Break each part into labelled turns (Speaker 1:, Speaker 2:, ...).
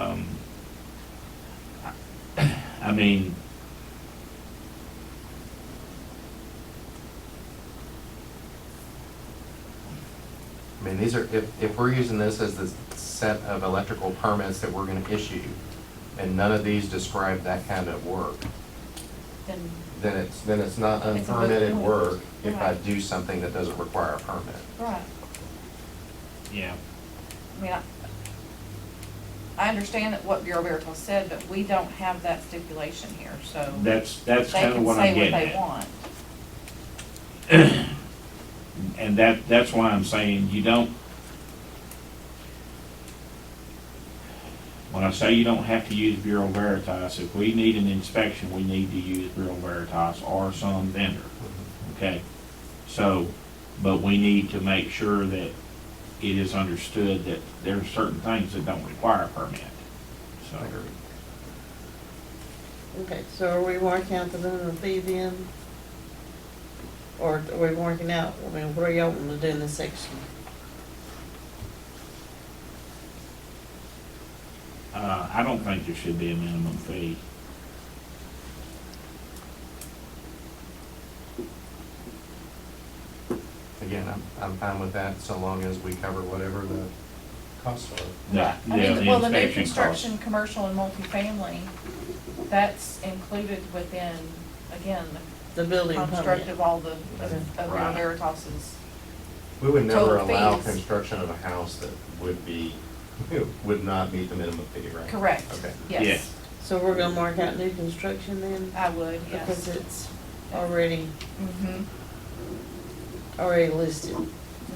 Speaker 1: Um, I mean,
Speaker 2: I mean, these are, if, if we're using this as the set of electrical permits that we're gonna issue, and none of these describe that kind of work,
Speaker 3: then
Speaker 2: then it's, then it's not
Speaker 3: It's a moot
Speaker 2: unpermitted
Speaker 3: point.
Speaker 2: work if I
Speaker 3: Right.
Speaker 2: do something that doesn't require a permit.
Speaker 3: Right,
Speaker 1: yeah,
Speaker 3: I mean, I, I understand that what Bureau Veritas said, but we don't have that stipulation here, so they
Speaker 1: that's, that's kind of
Speaker 3: can
Speaker 1: what I'm
Speaker 3: say
Speaker 1: getting
Speaker 3: what they
Speaker 1: at.
Speaker 3: want.
Speaker 1: And that, that's why I'm saying you don't, when I say you don't have to use Bureau Veritas, if we need an inspection, we need to use Bureau Veritas or some vendor. Okay, so, but we need to make sure that it is understood that there are certain things that don't require a permit. So,
Speaker 2: I agree.
Speaker 4: Okay, so are we marking out the minimum fee then? Or are we marking out, I mean, what are y'all wanting to do in this section?
Speaker 1: uh, I don't think there should be a minimum fee.
Speaker 2: Again, I'm, I'm fine with that, so long as we cover whatever the costs are.
Speaker 1: Yeah,
Speaker 3: I
Speaker 1: yeah,
Speaker 3: mean, well, the new
Speaker 1: inspection costs.
Speaker 3: construction, commercial and multifamily, that's included within, again,
Speaker 4: The
Speaker 3: the
Speaker 4: building
Speaker 3: construct
Speaker 4: permit?
Speaker 3: of all the, of of Bureau
Speaker 1: Right.
Speaker 3: Veritas's.
Speaker 2: We would never
Speaker 3: Total
Speaker 2: allow
Speaker 3: fees.
Speaker 2: construction of a house that would be, would not meet the minimum fee, right?
Speaker 3: Correct,
Speaker 2: Okay.
Speaker 3: yes,
Speaker 4: So we're gonna mark out new construction then?
Speaker 3: I would,
Speaker 4: Because
Speaker 3: yes.
Speaker 4: it's already,
Speaker 3: Mm-hmm,
Speaker 4: already listed.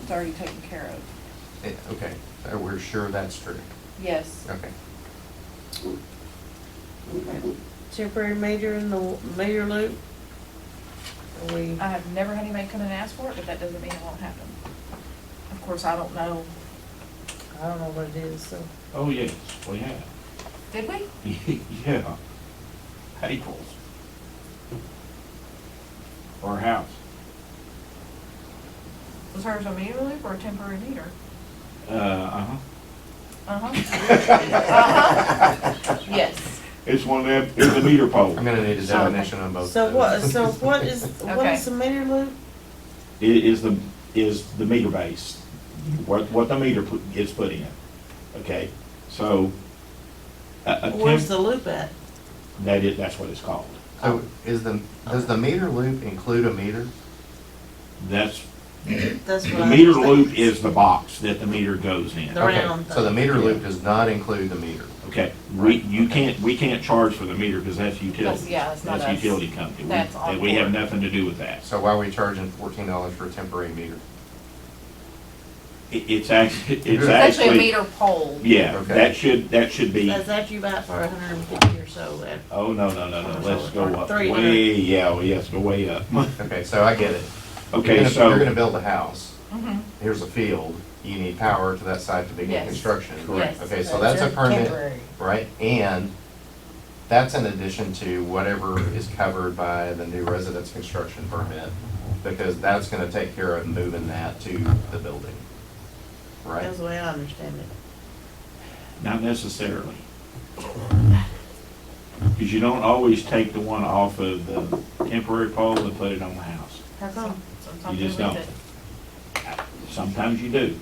Speaker 3: it's already taken care of,
Speaker 2: Eh, Okay, so we're sure that's true,
Speaker 3: yes.
Speaker 2: okay.
Speaker 4: Temporary major in the major loop? Are we,
Speaker 3: I have never had anybody come in and ask for it, but that doesn't mean it won't happen. Of course, I don't know,
Speaker 4: I don't know what it is, so.
Speaker 1: Oh, yes, we have.
Speaker 3: did we?
Speaker 1: Yeah, April's. Or a house.
Speaker 3: Was hers a meter loop or a temporary meter?
Speaker 1: Uh, uh-huh.
Speaker 3: Uh-huh. Uh-huh. Yes,
Speaker 1: It's one of them, it's a meter pole.
Speaker 2: I'm gonna need a definition on both.
Speaker 4: So
Speaker 2: of
Speaker 4: what,
Speaker 2: those.
Speaker 4: so what is, what
Speaker 3: Okay.
Speaker 4: is the major loop?
Speaker 1: It is the, is the meter base, what, what the meter put- gets put in. Okay, so, a, a
Speaker 4: Where's
Speaker 1: temp,
Speaker 4: the loop at?
Speaker 1: that is, that's what it's called.
Speaker 2: So is the, does the meter loop include a meter?
Speaker 1: That's,
Speaker 4: That's what
Speaker 1: the
Speaker 4: I.
Speaker 1: meter
Speaker 4: understand.
Speaker 1: loop is the box that the meter goes in.
Speaker 4: The
Speaker 2: Okay,
Speaker 4: round
Speaker 2: So the
Speaker 4: thing.
Speaker 2: meter loop does not include the meter.
Speaker 1: Okay, we, you can't, we can't charge for the meter because that's utility.
Speaker 3: That's- yeah, it's not us.
Speaker 1: That's utility company. We-
Speaker 3: That's on
Speaker 1: that We have
Speaker 3: board.
Speaker 1: nothing to do with that.
Speaker 2: So why are we charging fourteen dollars for a temporary meter?
Speaker 1: It, it's actually, it's
Speaker 2: It's
Speaker 3: it's actually a
Speaker 1: actually,
Speaker 3: meter pole.
Speaker 1: yeah,
Speaker 2: Okay.
Speaker 1: that should, that should be,
Speaker 4: That's after you buy it for a hundred and fifty or so, that,
Speaker 1: oh, no, no, no, no, let's go up.
Speaker 4: Three hundred.
Speaker 1: Way, yeah, well, yes, go way up.
Speaker 2: Okay, so I get it. You're
Speaker 1: Okay,
Speaker 2: gonna- You're gonna
Speaker 1: so,
Speaker 2: build a house,
Speaker 3: Mhm.
Speaker 2: here's a field, you need power to that site to begin
Speaker 3: Yes.
Speaker 2: construction.
Speaker 3: Correct.
Speaker 2: Okay, so that's a permit,
Speaker 4: temporary.
Speaker 2: right? And that's in addition to whatever is covered by the new residence construction permit, because that's gonna take care of moving that to the building, right?
Speaker 4: That's the way I understand it.
Speaker 1: not necessarily. Because you don't always take the one off of the temporary pole and put it on the house.
Speaker 3: How come? Sometimes
Speaker 1: You just
Speaker 3: leave
Speaker 1: don't.
Speaker 3: it.
Speaker 1: Sometimes you do,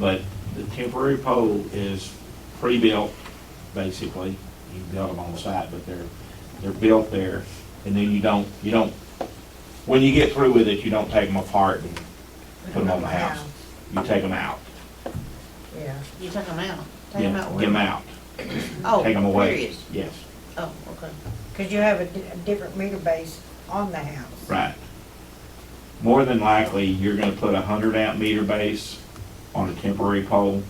Speaker 1: but the temporary pole is pre-built, basically. You build them on site, but they're, they're built there, and then you don't, you don't, when you get through with it, you don't take them apart and put them on the house. You take them out.
Speaker 4: Yeah. You took them out? Take them
Speaker 1: Yeah,
Speaker 4: out
Speaker 1: Get them
Speaker 4: where?
Speaker 1: out,
Speaker 4: Oh,
Speaker 1: take them away.
Speaker 4: period.
Speaker 1: Yes,
Speaker 4: Oh, okay.
Speaker 5: Because you have a di- a different meter base on the house.
Speaker 1: right. More than likely, you're gonna put a hundred amp meter base on a temporary pole,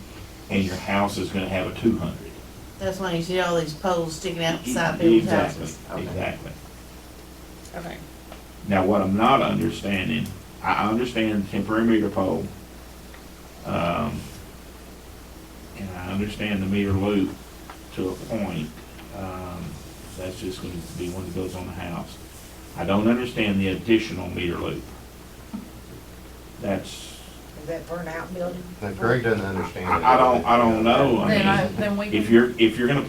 Speaker 1: and your house is gonna have a two hundred.
Speaker 4: That's why you see all these poles sticking out beside people's
Speaker 1: Exactly,
Speaker 4: houses. Okay.
Speaker 1: exactly.
Speaker 4: Okay.
Speaker 1: Now, what I'm not understanding, I I understand temporary meter pole. um, And I understand the meter loop to a point. um, That's just going to be one that goes on the house. I don't understand the additional meter loop. That's,
Speaker 5: Is that for an outbuilding?
Speaker 2: Now Greg doesn't understand. it.
Speaker 1: I I don't, I don't know. I
Speaker 3: Then I,
Speaker 1: mean,
Speaker 3: then we.
Speaker 1: if you're, if you're going to put